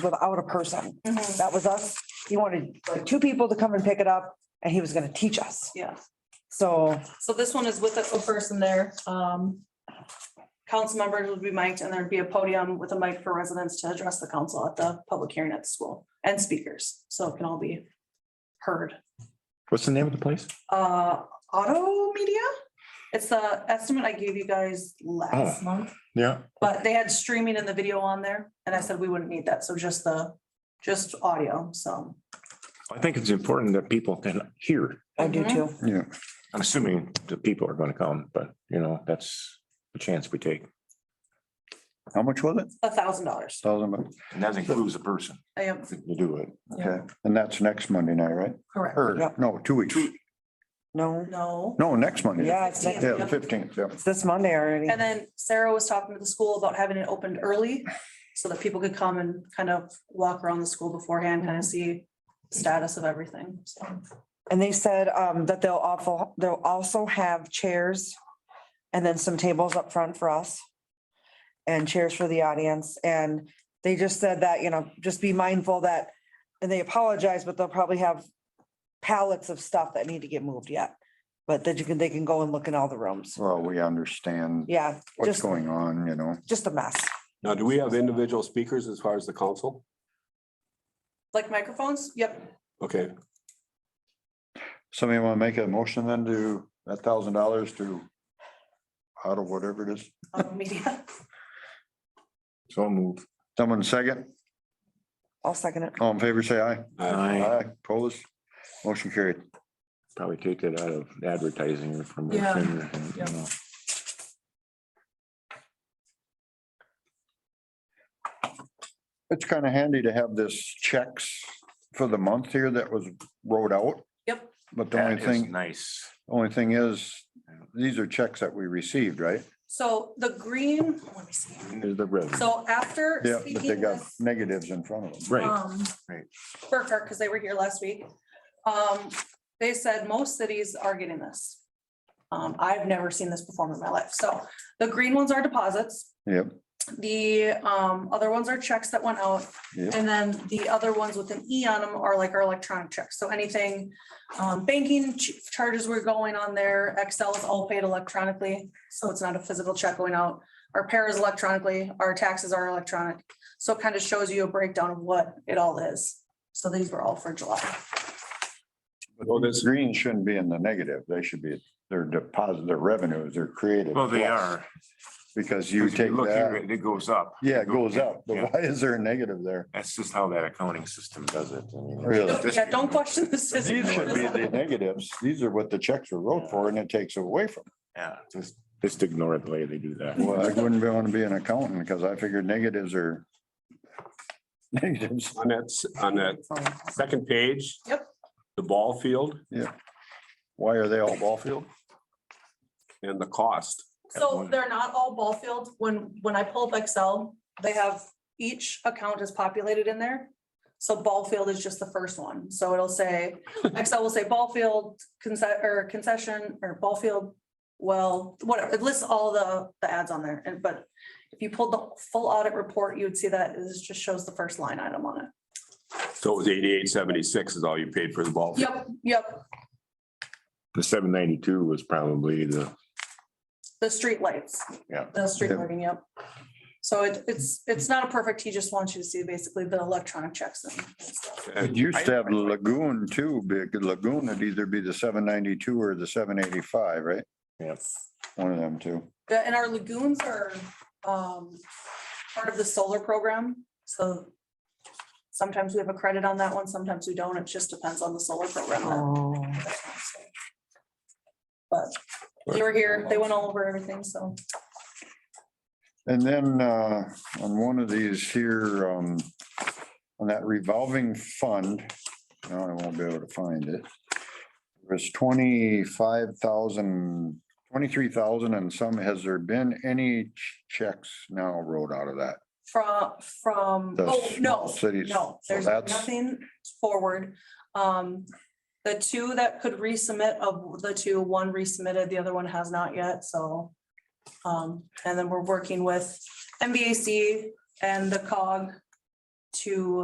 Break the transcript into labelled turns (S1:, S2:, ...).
S1: without a person.
S2: Mm-hmm,
S1: That was us. He wanted like two people to come and pick it up and he was gonna teach us.
S2: Yeah,
S1: So,
S2: so this one is with a person there. Um, council members would be mic'd and there'd be a podium with a mic for residents to address the council at the public hearing at the school and speakers, so it can all be heard.
S3: What's the name of the place?
S2: Uh, auto media? It's the estimate I gave you guys last month,
S3: Yeah.
S2: but they had streaming in the video on there and I said we wouldn't need that, so just the, just audio, so.
S3: I think it's important that people can hear.
S1: I do
S2: Mhm.
S1: too.
S4: Yeah,
S3: I'm assuming the people are going to come, but you know, that's the chance we take.
S4: how much was it?
S2: A thousand dollars.
S4: Thousand bucks,
S3: And that includes a person
S2: I am,
S3: to do it.
S4: okay, and that's next Monday night, right?
S2: correct.
S4: Or,
S1: Yep.
S4: no, two weeks,
S1: No,
S2: No.
S4: no, next Monday.
S1: yeah, it's next,
S4: Yeah, the fifteenth, yeah,
S1: it's this Monday already.
S2: And then Sarah was talking to the school about having it opened early so that people could come and kind of walk around the school beforehand, kind of see status of everything. So
S1: And they said um that they'll awful, they'll also have chairs and then some tables up front for us. And chairs for the audience. And they just said that, you know, just be mindful that, and they apologize, but they'll probably have pallets of stuff that need to get moved yet. But that you can, they can go and look in all the rooms.
S4: well, we understand
S1: Yeah,
S4: what's
S1: just,
S4: going on, you know,
S1: just a mess.
S5: Now, do we have individual speakers as far as the council?
S2: like microphones, yep,
S5: Okay,
S4: somebody wanna make a motion then to, a thousand dollars to out of whatever it is,
S2: um, media.
S3: So I'll move.
S4: someone second,
S1: I'll second it.
S4: all in favor, say aye.
S5: I
S4: Aye, opposed, motion carried.
S3: Probably take it out of advertising or from.
S2: Yeah. Yeah.
S3: Well,
S4: It's kind of handy to have this checks for the month here that was wrote out.
S2: Yep.
S4: But the only thing,
S3: Nice.
S4: only thing is, these are checks that we received, right?
S2: So the green, let me see.
S3: There's the revenue.
S2: So after
S4: Yeah, but they
S2: speaking
S4: got
S2: with
S4: negatives in front of them.
S3: Right.
S2: um,
S3: Right.
S2: Burkhart, because they were here last week, um, they said most cities are getting this. Um, I've never seen this performed in my life. So the green ones are deposits.
S4: Yep,
S2: The um other ones are checks that went out.
S4: Yep.
S2: And then the other ones with an E on them are like our electronic checks. So anything um banking ch- charges were going on there. Excel is all paid electronically, so it's not a physical check going out. Our pay is electronically, our taxes are electronic. So it kind of shows you a breakdown of what it all is. So these were all for July.
S4: well, this green shouldn't be in the negative. They should be, their deposit, their revenues, their creative. plus, Because you
S3: Because if
S4: take
S3: look here,
S4: that,
S3: It it goes up.
S4: yeah, it goes up. But
S3: Yeah.
S4: why is there a negative there?
S3: That's just how that accounting system does it. I mean,
S4: Really?
S3: it's just-
S2: Yeah, don't question the system.
S4: These should be the negatives. These are what the checks were wrote for and it takes away from.
S3: Yeah, just, just ignore it the way they do that.
S4: Well, I wouldn't want to be an accountant because I figured negatives are negatives.
S5: on that, s- on that second page.
S2: Yep.
S5: The ball field
S4: Why are they all ball field?
S5: and the cost.
S2: So they're not all ball fields. When, when I pull up Excel, they have, each account is populated in there. So ball field is just the first one. So it'll say, Excel will say ball field, conce- or concession, or ball field. Well, whatever, it lists all the, the ads on there. And, but if you pulled the full audit report, you would see that this just shows the first line item on it.
S5: So it was eighty-eight seventy-six is all you paid for the ball. field.
S2: Yep, yep.
S3: The seven ninety-two was probably the,
S2: The street lights.
S3: Yeah.
S2: The street
S4: Yep.
S2: lighting, yep. So it, it's, it's not a perfect, he just wants you to see basically the electronic checks. and stuff.
S4: It used to have the lagoon too, big lagoon would either be the seven ninety-two or the seven eighty-five, right?
S3: yes.
S4: One of them two.
S2: The- And our lagoons are um part of the solar program, so sometimes we have a credit on that one, sometimes we don't. It just depends on the solar program.
S1: Oh,
S2: But they were here, they went all over everything, so
S4: And then uh, on one of these here, um, on that revolving fund, now I won't be able to find it. It was twenty-five thousand, twenty-three thousand and some. Has there been any ch- checks now wrote out of that?
S2: from from,
S4: The
S2: oh,
S4: small
S2: no,
S4: cities,
S2: no,
S4: so
S2: there's
S4: that's-
S2: nothing forward. Um, the two that could resubmit of the two, one resubmitted, the other one has not yet, so. Um, and then we're working with MBAC and the cog to